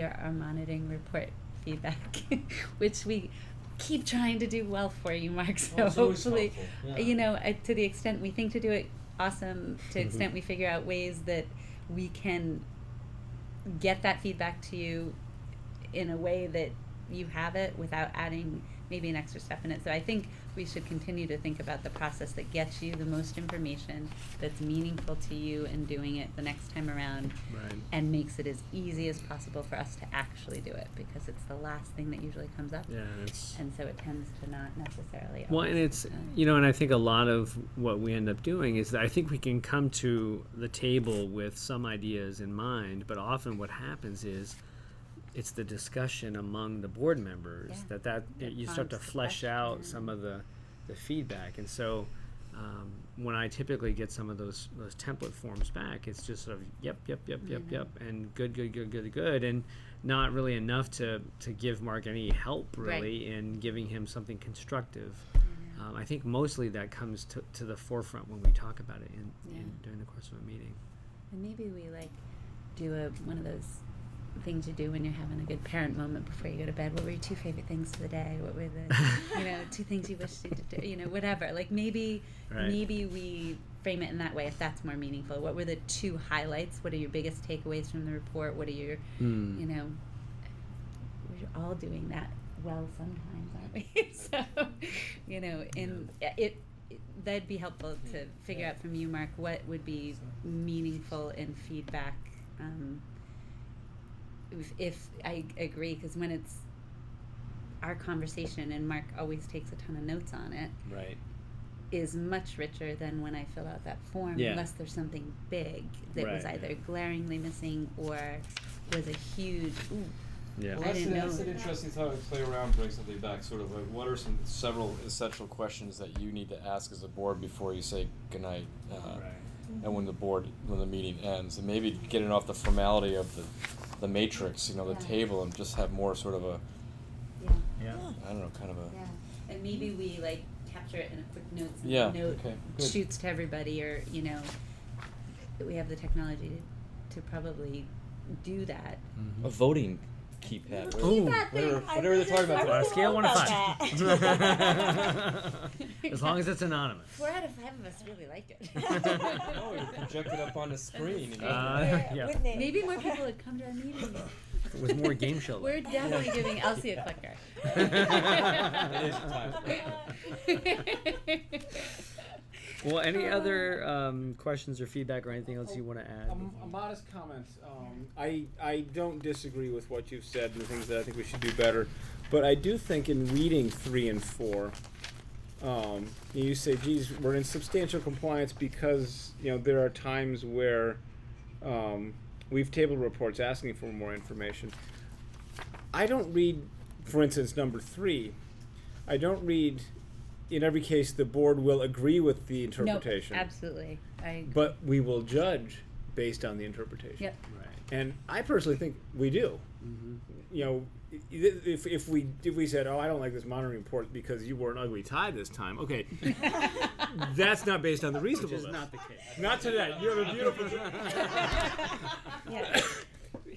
here, our monitoring report feedback, which we keep trying to do well for you, Mark, so Well, it's always hopefully, helpful, yeah. you know, uh, to the extent we think to do it, awesome, to the extent we figure out ways that we can get that feedback to you in a way that you have it without adding maybe an extra step in it. So I think we should continue to think about the process that gets you the most information, that's meaningful to you and doing it the next time around Right. and makes it as easy as possible for us to actually do it because it's the last thing that usually comes up. Yeah, and it's And so it tends to not necessarily. well, always, and it's uh, you know, and I think a lot of what we end up doing is that I think we can come to the table with some ideas in mind, but often what happens is it's the discussion among the board members Yeah. that that That you start to prompts the flesh out question. some of the the feedback, and so. Um, when I typically get some of those those template forms back, it's just sort of yep, yep, yep, yep, Mm-hmm. yep, and good, good, good, good, good, and not really enough to to give Mark any help Right. really in giving him something constructive. yeah. Um, I think mostly that comes to, to the forefront when we talk about it in, Yeah. in during the course of a meeting. And maybe we like do a one of those things you do when you're having a good parent moment before you go to bed. What were your two favorite things for the day? What were the you know two things you wish you did? You know whatever. Like maybe Right. maybe we frame it in that way if that's more meaningful. What were the two highlights? What are your biggest takeaways from the report? What are your Mm. you know we're all doing that well sometimes aren't we so you know in it, it that'd be helpful to figure out from you mark what would be meaningful in feedback um, if, if i agree because when it's our conversation and mark always takes a ton of notes on it Right. is much richer than when I fill out that form, Yeah. unless there's something big that was Right. either glaringly missing or was a huge. Ooh, Yeah. Well, I that's, didn't an, know that's an that. interesting thought to play around, bring something back. Sort of like, what are some several essential questions that you need to ask as a board before you say goodnight? Uh, Uh-huh. And when the board, when the meeting ends, and maybe getting off the formality of the, the matrix, you know, the Yeah. table, and just have more sort of a, yeah, Yeah. I don't know, kind of a. yeah. And maybe we like capture it in a quick note. so the Yeah, Note okay, good. shoots to everybody, or you know, we have the technology to, to probably do that. Mm-hmm. A voting keypad. Oh. Ooh, That thing, whatever- I whatever they're talking about On a today. really scale of one to about five. as long as it's anonymous. Four out of five of us really like it. No, you Oh, project it up on the screen. You know? Uh, that. yeah. Wouldn't it? Maybe more people would come to our meetings. With more game show. We're left. definitely giving Elsie a clicker. is well, any other um, questions or feedback or anything else you want to add? Um, a modest comment. Um, I, I don't disagree with what you've said and the things that I think we should do better, but I do think in reading three and four, um, you say, geez, we're in substantial compliance because, you know, there are times where um, we've tabled reports asking for more information. I don't read, for instance, number three, I don't read, in every case, the board will agree with the No, interpretation. absolutely. I, But we will judge based on the interpretation. yep. right. Mm-hmm. And I personally think we do. You know, i- i- if, if we if we said, "Oh, I don't like this monitoring report because you wore an ugly tie this time," okay, that's not based on the Which is reasonableness. not the case. Not today. You have a beautiful. Yeah.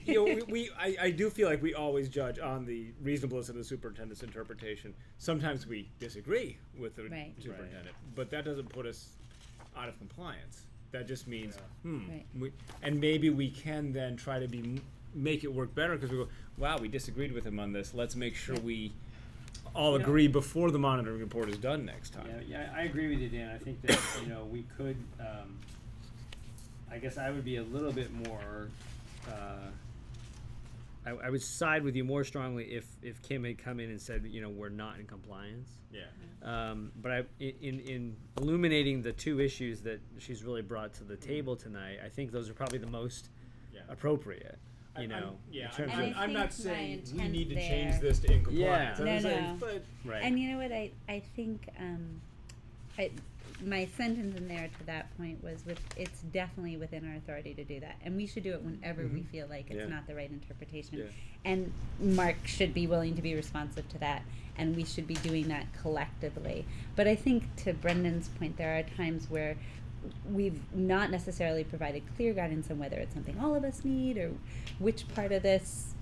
you know, we, we I, I do feel like we always judge on the reasonableness of the superintendent's interpretation. Sometimes we disagree with the Right. superintendent, but that doesn't put us out of compliance. That just means, hmm, Right. we, and maybe we can then try to be m- make it work better because we go, wow, we disagreed with him on this. Let's make sure we all Yeah. agree before the monitoring report is done next time. Yeah, yeah, I agree with you, Dan. I think that, you know, we could, um, I guess I would be a little bit more, uh, I, I would side with you more strongly if, if Kim had come in and said, you know, we're not in compliance. Um, but I, in, in- in illuminating the two issues that she's really brought to the table tonight, I think those are probably the most Yeah. appropriate, I- you I'm- know, yeah, in And terms I I'm, of, think I'm my not saying we intent need to there- change this to in Yeah. compliance. I'm No, saying, no. but right. And you know what? I, I think um, I, my sentence in there to that point was with it's definitely within our authority to do that. And we should do it whenever we feel like it's Mm-hmm. Yeah. not the right interpretation. Yeah. And Mark should be willing to be responsive to that. And we should be doing that collectively. But I think to Brendan's point, there are times where we've not necessarily provided clear guidance on whether it's something all of us need or which part of this